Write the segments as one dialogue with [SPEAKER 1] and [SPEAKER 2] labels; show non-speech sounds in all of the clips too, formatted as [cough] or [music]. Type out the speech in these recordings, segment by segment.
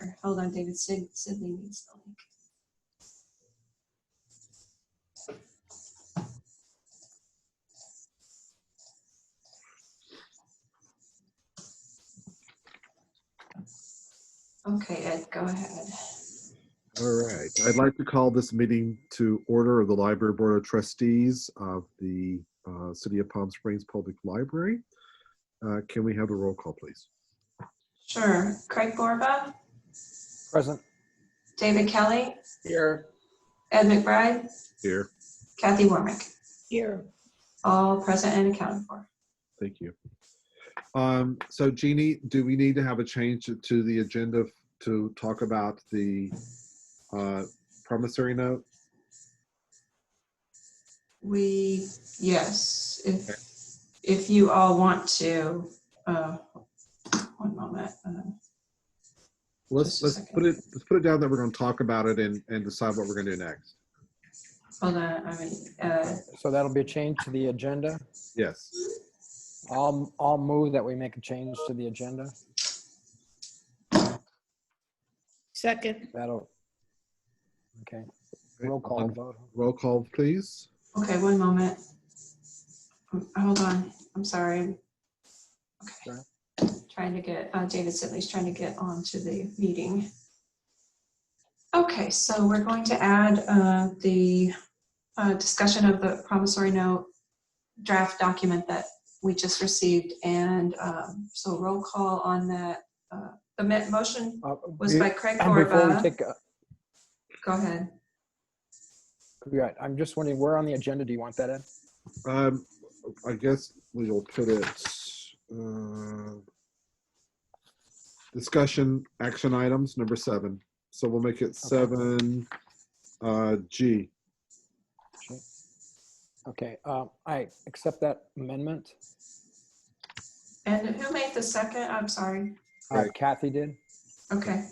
[SPEAKER 1] or, hold on, David, Sid, Sydney needs the link. Okay, Ed, go ahead.
[SPEAKER 2] All right, I'd like to call this meeting to order of the Library Board of Trustees of the uh, City of Palm Springs Public Library. Uh, Can we have a roll call, please?
[SPEAKER 1] Sure. Craig Borba,
[SPEAKER 3] Present.
[SPEAKER 1] David Kelly,
[SPEAKER 3] Here.
[SPEAKER 1] Ed McBride,
[SPEAKER 2] Here,
[SPEAKER 1] Kathy Warmick,
[SPEAKER 3] Here.
[SPEAKER 1] all present and accounted for.
[SPEAKER 2] thank you. Um, So Jeannie, do we need to have a change to the agenda to talk about the uh, promissory note?
[SPEAKER 1] We, yes, if, if you all want to, uh, one moment. uh,
[SPEAKER 2] Let's,
[SPEAKER 1] Just a
[SPEAKER 2] let's
[SPEAKER 1] second.
[SPEAKER 2] put it, let's put it down that we're going to talk about it and, and decide what we're going to do next.
[SPEAKER 1] Hold on, I mean, uh,
[SPEAKER 3] So that'll be a change to the agenda.
[SPEAKER 2] Yes,
[SPEAKER 3] I'll, I'll move that we make a change to the agenda.
[SPEAKER 4] Second,
[SPEAKER 3] That'll. Okay, roll call vote.
[SPEAKER 2] roll call, please.
[SPEAKER 1] okay, one moment. Um, Hold on, I'm sorry. Okay.
[SPEAKER 3] Sure.
[SPEAKER 1] Trying to get, uh, David Sibley's trying to get on to the meeting. Okay, so we're going to add uh, the uh, discussion of the promissory note draft document that we just received, and um, so roll call on that. uh, The mo- motion
[SPEAKER 3] Uh,
[SPEAKER 1] was
[SPEAKER 3] be-
[SPEAKER 1] by Craig
[SPEAKER 3] Before we
[SPEAKER 1] Borba.
[SPEAKER 3] take, uh,
[SPEAKER 1] Go ahead.
[SPEAKER 3] right, I'm just wondering, where on the agenda do you want that in?
[SPEAKER 2] Um, I guess we will put it, uh, discussion, action items, number seven. So we'll make it seven, uh, G.
[SPEAKER 3] Okay, uh, I accept that amendment.
[SPEAKER 1] And who made the second? I'm sorry.
[SPEAKER 3] Uh, Kathy did.
[SPEAKER 1] Okay.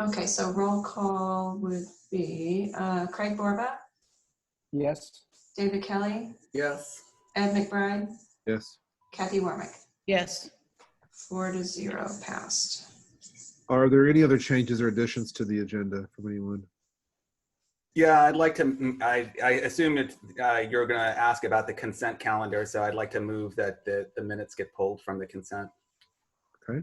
[SPEAKER 1] Okay, so roll call would be uh, Craig Borba,
[SPEAKER 3] Yes.
[SPEAKER 1] David Kelly,
[SPEAKER 3] Yes.
[SPEAKER 1] Ed McBride,
[SPEAKER 2] Yes.
[SPEAKER 1] Kathy Warmick.
[SPEAKER 4] yes,
[SPEAKER 1] Four to zero passed.
[SPEAKER 2] Are there any other changes or additions to the agenda from anyone?
[SPEAKER 5] Yeah, I'd like to, mm, I, I assume it's, uh, you're gonna ask about the consent calendar, so I'd like to move that the, the minutes get pulled from the consent.
[SPEAKER 1] Okay,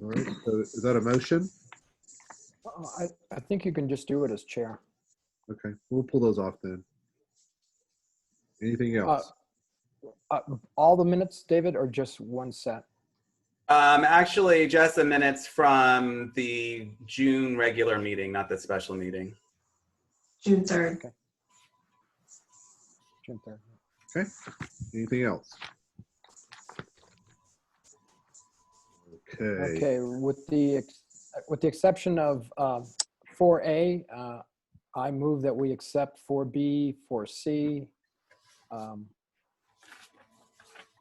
[SPEAKER 2] All right, so is that a motion?
[SPEAKER 3] Uh, I, I think you can just do it as chair.
[SPEAKER 2] Okay, we'll pull those off then. Anything
[SPEAKER 3] Uh,
[SPEAKER 2] else?
[SPEAKER 3] uh, All the minutes, David, or just one set?
[SPEAKER 5] Um, actually, just the minutes from the June regular meeting, not the special meeting.
[SPEAKER 1] June 3rd.
[SPEAKER 3] June 3rd.
[SPEAKER 2] Anything else? Okay,
[SPEAKER 3] Okay, with the, ex- with the exception of uh, 4A, uh, I move that we accept 4B, 4C. um,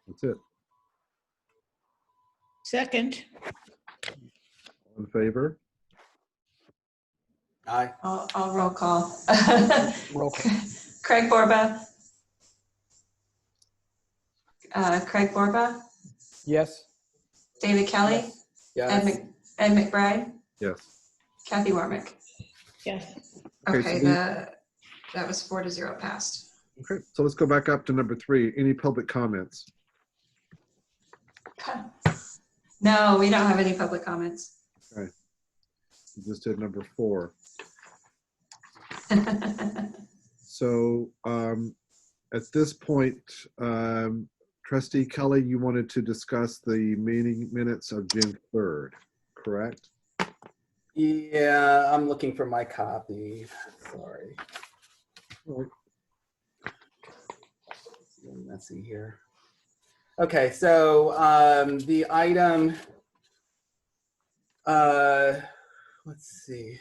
[SPEAKER 2] that's it.
[SPEAKER 4] second,
[SPEAKER 2] All In favor?
[SPEAKER 5] Aye,
[SPEAKER 1] I'll I'll roll call. [laughs]
[SPEAKER 3] roll call.
[SPEAKER 1] Craig Borba. Uh, Craig Borba,
[SPEAKER 3] Yes?
[SPEAKER 1] David Kelly, Ed Mc- Ed McBride,
[SPEAKER 2] Yes.
[SPEAKER 1] Kathy Warmick.
[SPEAKER 4] yes,
[SPEAKER 2] Okay, so
[SPEAKER 1] Okay,
[SPEAKER 2] we-
[SPEAKER 1] the, that was four to zero passed.
[SPEAKER 2] Okay, so let's go back up to number three. Any public comments?
[SPEAKER 1] No, we don't have any public comments.
[SPEAKER 2] We just did number four. So um, at this point, um, trustee Kelly, you wanted to discuss the meeting minutes of June 3rd, correct?
[SPEAKER 5] yeah, I'm looking for my copy, sorry. Getting Messy here. Okay, so, um, the item, uh, let's see.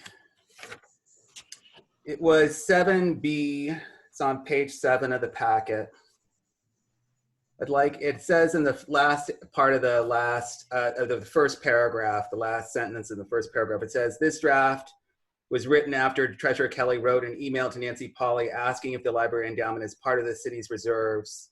[SPEAKER 5] It was seven B, it's on page seven of the packet. I'd like, it says in the last part of the last, uh, of the first paragraph, the last sentence in the first paragraph, it says, this draft was written after Treasurer Kelly wrote an email to Nancy Polly asking if the library endowment is part of the city's reserves